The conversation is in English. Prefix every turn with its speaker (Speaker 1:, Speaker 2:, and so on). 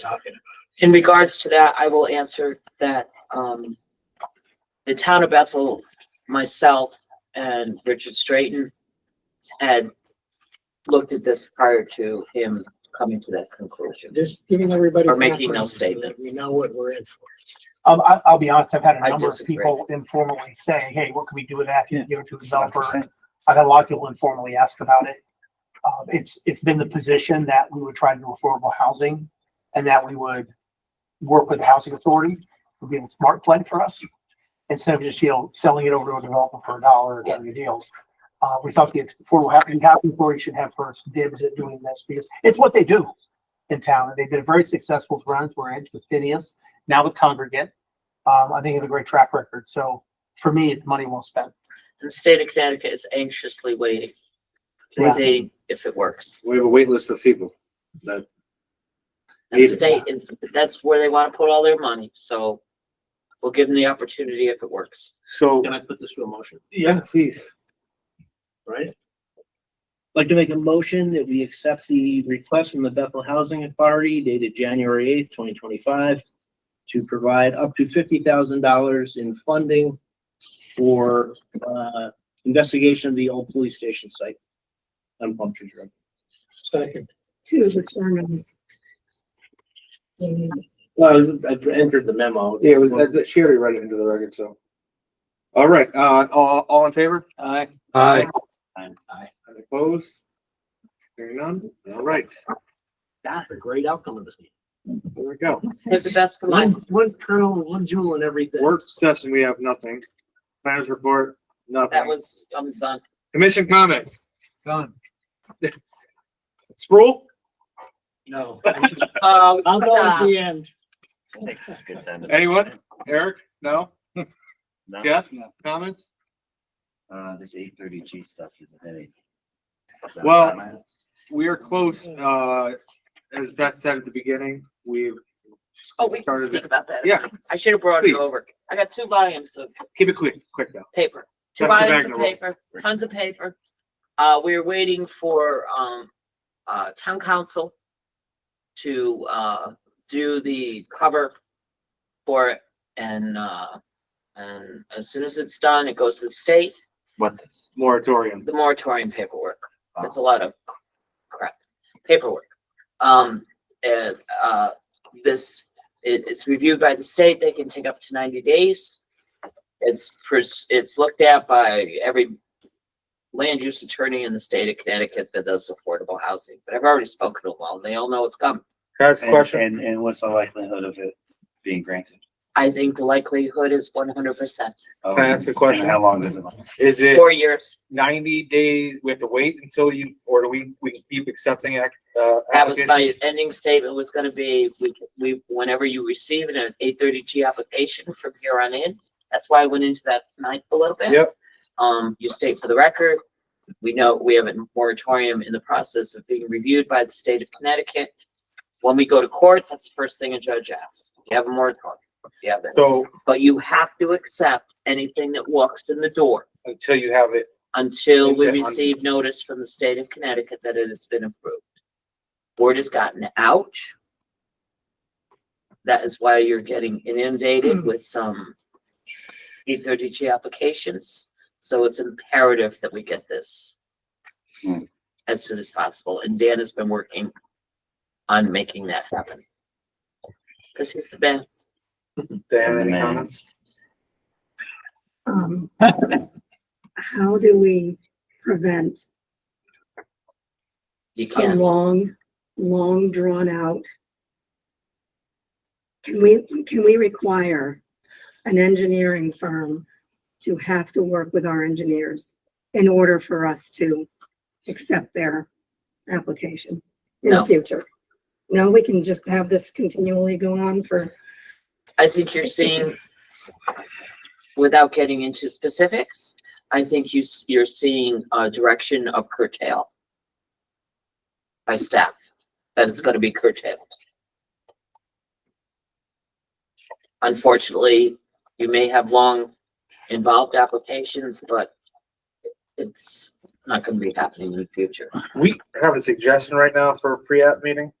Speaker 1: talking about.
Speaker 2: In regards to that, I will answer that, um, the town of Bethel, myself and Richard Straighton had looked at this prior to him coming to that conclusion.
Speaker 1: Just giving everybody.
Speaker 2: Or making
Speaker 1: background
Speaker 2: those
Speaker 1: so that
Speaker 2: statements.
Speaker 1: We know what we're in for.
Speaker 3: Um, I, I'll be honest, I've had
Speaker 2: I
Speaker 3: a number of
Speaker 2: disagree.
Speaker 3: people informally say, hey, what can we do with that? Can
Speaker 4: Yeah.
Speaker 3: you give it to a developer? I've had a lot of people informally ask about it. Uh, it's, it's been the position that we would try to do affordable housing and that we would work with the housing authority, would be a smart play for us. Instead of just, you know, selling it over to a developer for a dollar or getting a deal. Uh, we thought the affordable housing, housing authority should have first dibs at doing this because it's what they do in town. They did a very successful with Brownsburg Edge with Phineas, now with Congregate. Um, I think they have a great track record. So for me, it's money well spent.
Speaker 2: The state of Connecticut is anxiously waiting to
Speaker 3: Yeah.
Speaker 2: see if it works.
Speaker 4: We have a wait list of people that,
Speaker 2: And the
Speaker 4: Neither.
Speaker 2: state is, that's where they want to put all their money, so we'll give them the opportunity if it works.
Speaker 4: so,
Speaker 5: Can I put this to a motion,
Speaker 4: yeah, please.
Speaker 5: right? Like to make a motion that we accept the request from the Bethel Housing Authority dated January eighth, twenty twenty-five to provide up to fifty thousand dollars in funding for, uh, investigation of the old police station site on Plum Tree Road.
Speaker 1: Second,
Speaker 6: to determine. the
Speaker 5: Well, I entered the memo.
Speaker 4: Yeah, it was, that that Sherry read it into the record, so. All right, uh, all, all in favor? Aye. Aye. Opposed? Hearing none? All right,
Speaker 5: That's a great outcome of this meeting.
Speaker 4: there we go.
Speaker 2: Save the best for
Speaker 5: One,
Speaker 2: last.
Speaker 5: one kernel, one jewel and everything.
Speaker 4: Work session, we have nothing. Planners report,
Speaker 2: That
Speaker 4: nothing.
Speaker 2: was, I'm done.
Speaker 4: Commission comments? Done. Sproul?
Speaker 1: no.
Speaker 2: Oh,
Speaker 1: I'll go at the end.
Speaker 7: Thanks. Good time to-
Speaker 4: Anyone? Eric? No?
Speaker 7: No?
Speaker 4: Jeff? Comments?
Speaker 7: Uh, this eight thirty G stuff is a headache. Is that
Speaker 4: Well-
Speaker 7: what I'm at?
Speaker 4: We are close, uh, as Beth said at the beginning, we've
Speaker 2: Oh, we can
Speaker 4: started
Speaker 2: speak
Speaker 4: it.
Speaker 2: about that.
Speaker 4: Yeah,
Speaker 2: I should have brought
Speaker 4: Please.
Speaker 2: it over. I got two volumes of
Speaker 4: keep it quick, quick though.
Speaker 2: paper, two
Speaker 4: That's the
Speaker 2: volumes of
Speaker 4: Magna roll.
Speaker 2: paper, tons of paper. Uh, we're waiting for, um, uh, town council to, uh, do the cover for it. And, uh, and as soon as it's done, it goes to the state,
Speaker 7: What this?
Speaker 4: Moratorium.
Speaker 2: the moratorium paperwork. It's a lot of crap, paperwork. Um, and, uh, this, it, it's reviewed by the state, they can take up to ninety days. It's, pers- it's looked at by every land use attorney in the state of Connecticut that does affordable housing, but I've already spoken to them all, they all know it's coming.
Speaker 4: Guys,
Speaker 7: And-
Speaker 4: question?
Speaker 7: And, and what's the likelihood of it being granted?
Speaker 2: I think the likelihood is one hundred percent,
Speaker 4: Can I ask a question?
Speaker 7: Oh, And How long does it last?
Speaker 4: Is it
Speaker 2: four years,
Speaker 4: ninety days? We have to wait until you, or do we, we can keep accepting, ac- uh,
Speaker 2: that was my
Speaker 4: applications?
Speaker 2: ending statement was gonna be, we, we, whenever you receive an eight thirty G application from here on in. That's why I went into that night a little bit.
Speaker 4: Yep,
Speaker 2: Um, you state for the record, we know we have a moratorium in the process of being reviewed by the state of Connecticut. When we go to court, that's the first thing a judge asks. You have a moratorium. You have it.
Speaker 4: so
Speaker 2: But you have to accept anything that walks in the door
Speaker 4: until you have it,
Speaker 2: until we
Speaker 4: Okay, on-
Speaker 2: receive notice from the state of Connecticut that it has been approved. Word has gotten out. That is why you're getting inundated with some eight thirty G applications. So it's imperative that we get this
Speaker 7: Hmm.
Speaker 2: as soon as possible. And Dan has been working on making that happen. Cause he's the man.
Speaker 4: Dan,
Speaker 7: And
Speaker 4: any
Speaker 7: then-
Speaker 4: comments?
Speaker 6: um, How do we prevent
Speaker 2: You
Speaker 6: a
Speaker 2: can't,
Speaker 6: long, long drawn out? Can we, can we require an engineering firm to have to work with our engineers in order for us to accept their application in
Speaker 2: No.
Speaker 6: the future? No, we can just have this continually go on for
Speaker 2: I think you're seeing, without getting into specifics, I think you, s- you're seeing a direction of curtail by staff, that it's gonna be curtailed. Unfortunately, you may have long involved applications, but it's not gonna be happening in the future.
Speaker 4: We have a suggestion right now for a pre-app meeting.